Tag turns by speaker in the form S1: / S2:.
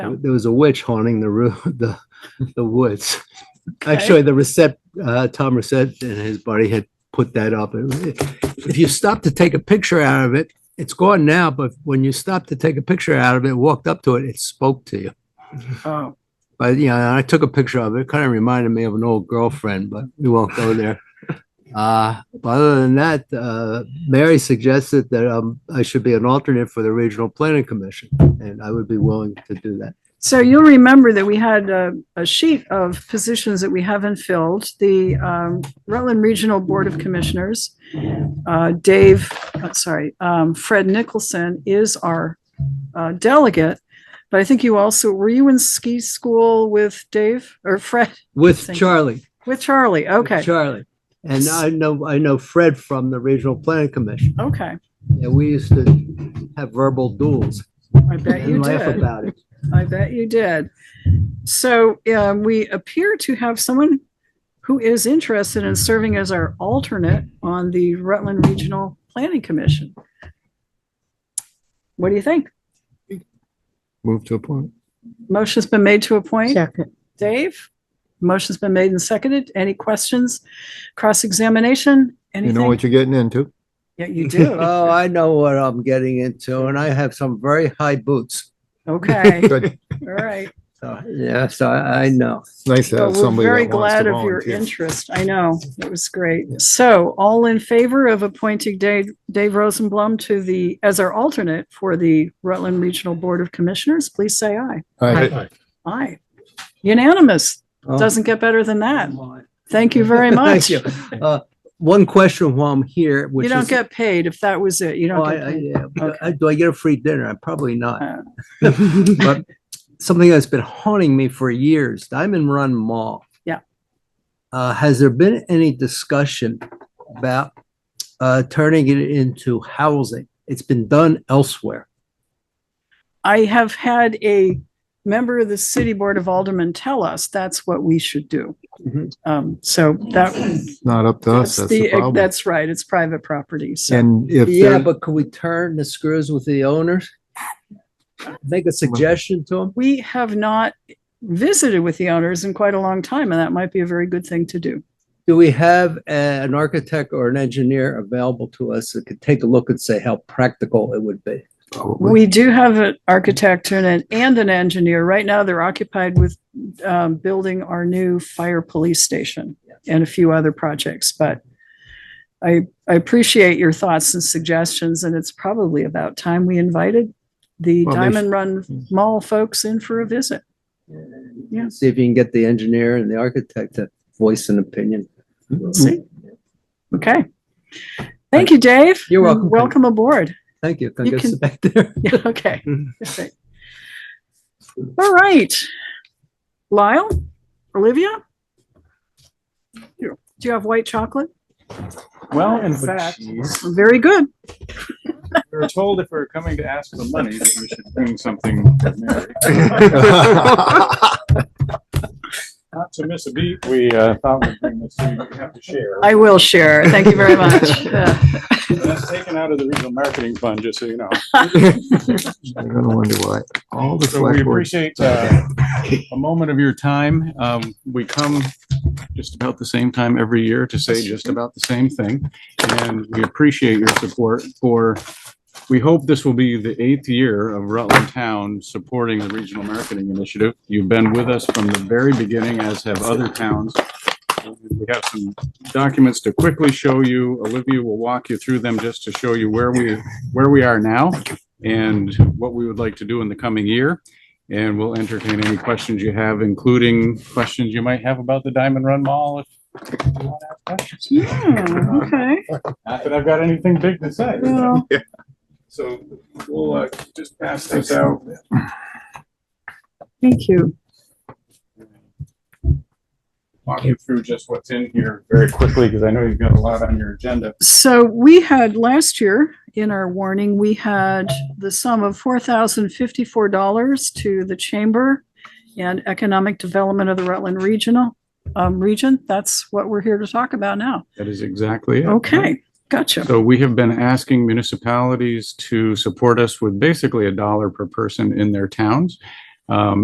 S1: w- there was a witch haunting the roo the, the woods. Actually, the Reset, uh, Tom Reset and his buddy had put that up. It- If you stop to take a picture out of it, it's gone now, but when you stopped to take a picture out of it, walked up to it, it spoke to you.
S2: Oh,
S1: But, you know, I took a picture of it. Kind of reminded me of an old girlfriend, but we won't go there. Uh, but other than that, uh, Mary suggested that, um, I should be an alternate for the Regional Planning Commission, and I would be willing to do that.
S2: so you'll remember that we had a, a sheet of positions that we haven't filled. The um, Rutland Regional Board of Commissioners, uh, Dave, uh, sorry, um, Fred Nicholson is our uh, delegate. But I think you also, were you in ski school with Dave or Fred,
S1: With
S2: Thank you.
S1: Charlie.
S2: with Charlie? Okay,
S1: Charlie. And I know, I know Fred from the Regional Planning Commission.
S2: okay.
S1: And we used to have verbal duels
S2: I bet you
S1: and laugh
S2: did.
S1: about it.
S2: I bet you did. So um, we appear to have someone who is interested in serving as our alternate on the Rutland Regional Planning Commission. What do you think?
S1: Move to a point.
S2: Motion's been made to appoint.
S3: Second.
S2: Dave? Motion's been made and seconded. Any questions? Cross-examination?
S4: You know
S2: Anything?
S4: what you're getting into.
S2: Yeah, you do.
S1: Oh, I know what I'm getting into, and I have some very high boots.
S2: Okay, all
S4: Good.
S2: right.
S1: So, yeah, so I, I know.
S4: It's nice to have
S2: But we're
S4: somebody
S2: very
S4: that wants to
S2: glad of your
S4: volunteer.
S2: interest. I know, it was great. So all in favor of appointing Dave, Dave Rosenblum to the, as our alternate for the Rutland Regional Board of Commissioners, please say aye.
S4: Aye.
S2: Aye. Unanimous.
S1: Oh.
S2: Doesn't get better than that. Thank you very much.
S1: Thank you.
S2: You
S1: Uh, one question while I'm here, which is.
S2: don't get paid if that was it. You
S1: Oh,
S2: don't
S1: I-
S2: get
S1: I-
S2: paid.
S1: yeah,
S2: Okay.
S1: I- Do I get a free dinner? I'm Probably not.
S2: Uh.
S1: But something that's been haunting me for years, Diamond Run Mall.
S2: Yeah.
S1: Uh, has there been any discussion about, uh, turning it into housing? It's been done elsewhere.
S2: I have had a member of the city board of aldermen tell us that's what we should do.
S1: Mhm.
S2: Um, so that,
S4: It's Not up to us.
S2: that's
S4: That's the
S2: the,
S4: problem.
S2: that's right. It's private property. So.
S4: And if
S1: Yeah,
S4: they're,
S1: but could we turn the screws with the owners? Make a suggestion to them?
S2: we have not visited with the owners in quite a long time, and that might be a very good thing to do.
S1: Do we have a- an architect or an engineer available to us that could take a look and say how practical it would be?
S4: probably.
S2: We do have an architect and an, and an engineer. Right now, they're occupied with um, building our new fire police station and a few other projects, but I, I appreciate your thoughts and suggestions, and it's probably about time we invited the
S4: Well, they-
S2: Diamond Run Mall folks in for a visit. Yeah.
S1: See if you can get the engineer and the architect to voice an opinion.
S2: We'll see. Okay. Thank you, Dave.
S1: You're welcome.
S2: Welcome aboard.
S1: Thank you. Can I
S2: You
S1: go
S2: can-
S1: sit back there?
S2: Yeah, okay.
S1: Mhm.
S2: Perfect. All right. Lyle, Olivia? Do you have white chocolate?
S5: Well, in fact,
S2: Very good.
S5: we were told if we were coming to ask for money, that we should bring something to Mary. Not to miss a beat, we uh, thought we'd bring this, thing we have to share.
S2: I will share. Thank you very much. Yeah.
S5: That's taken out of the regional marketing fund, just so you know.
S4: You're gonna wonder why all the
S5: So we
S4: select boards.
S5: appreciate uh, a moment of your time. Um, We come just about the same time every year to say just about the same thing. And we appreciate your support for, we hope this will be the eighth year of Rutland Town supporting the Regional Marketing Initiative. You've been with us from the very beginning, as have other towns. We have some documents to quickly show you. Olivia will walk you through them just to show you where we, where we are now and what we would like to do in the coming year. And we'll entertain any questions you have, including questions you might have about the Diamond Run Mall. if you want to ask questions.
S2: Hmm, Okay.
S5: Not that I've got anything big to say.
S2: Well,
S5: So we'll uh, just pass this out.
S2: Thank you.
S5: Walk you through just what's in here very quickly because I know you've got a lot on your agenda.
S2: So we had last year in our warning, we had the sum of four thousand fifty-four dollars to the Chamber and Economic Development of the Rutland Regional, um, region. That's what we're here to talk about now.
S5: That is exactly it.
S2: Okay, gotcha.
S5: So we have been asking municipalities to support us with basically a dollar per person in their towns. Um,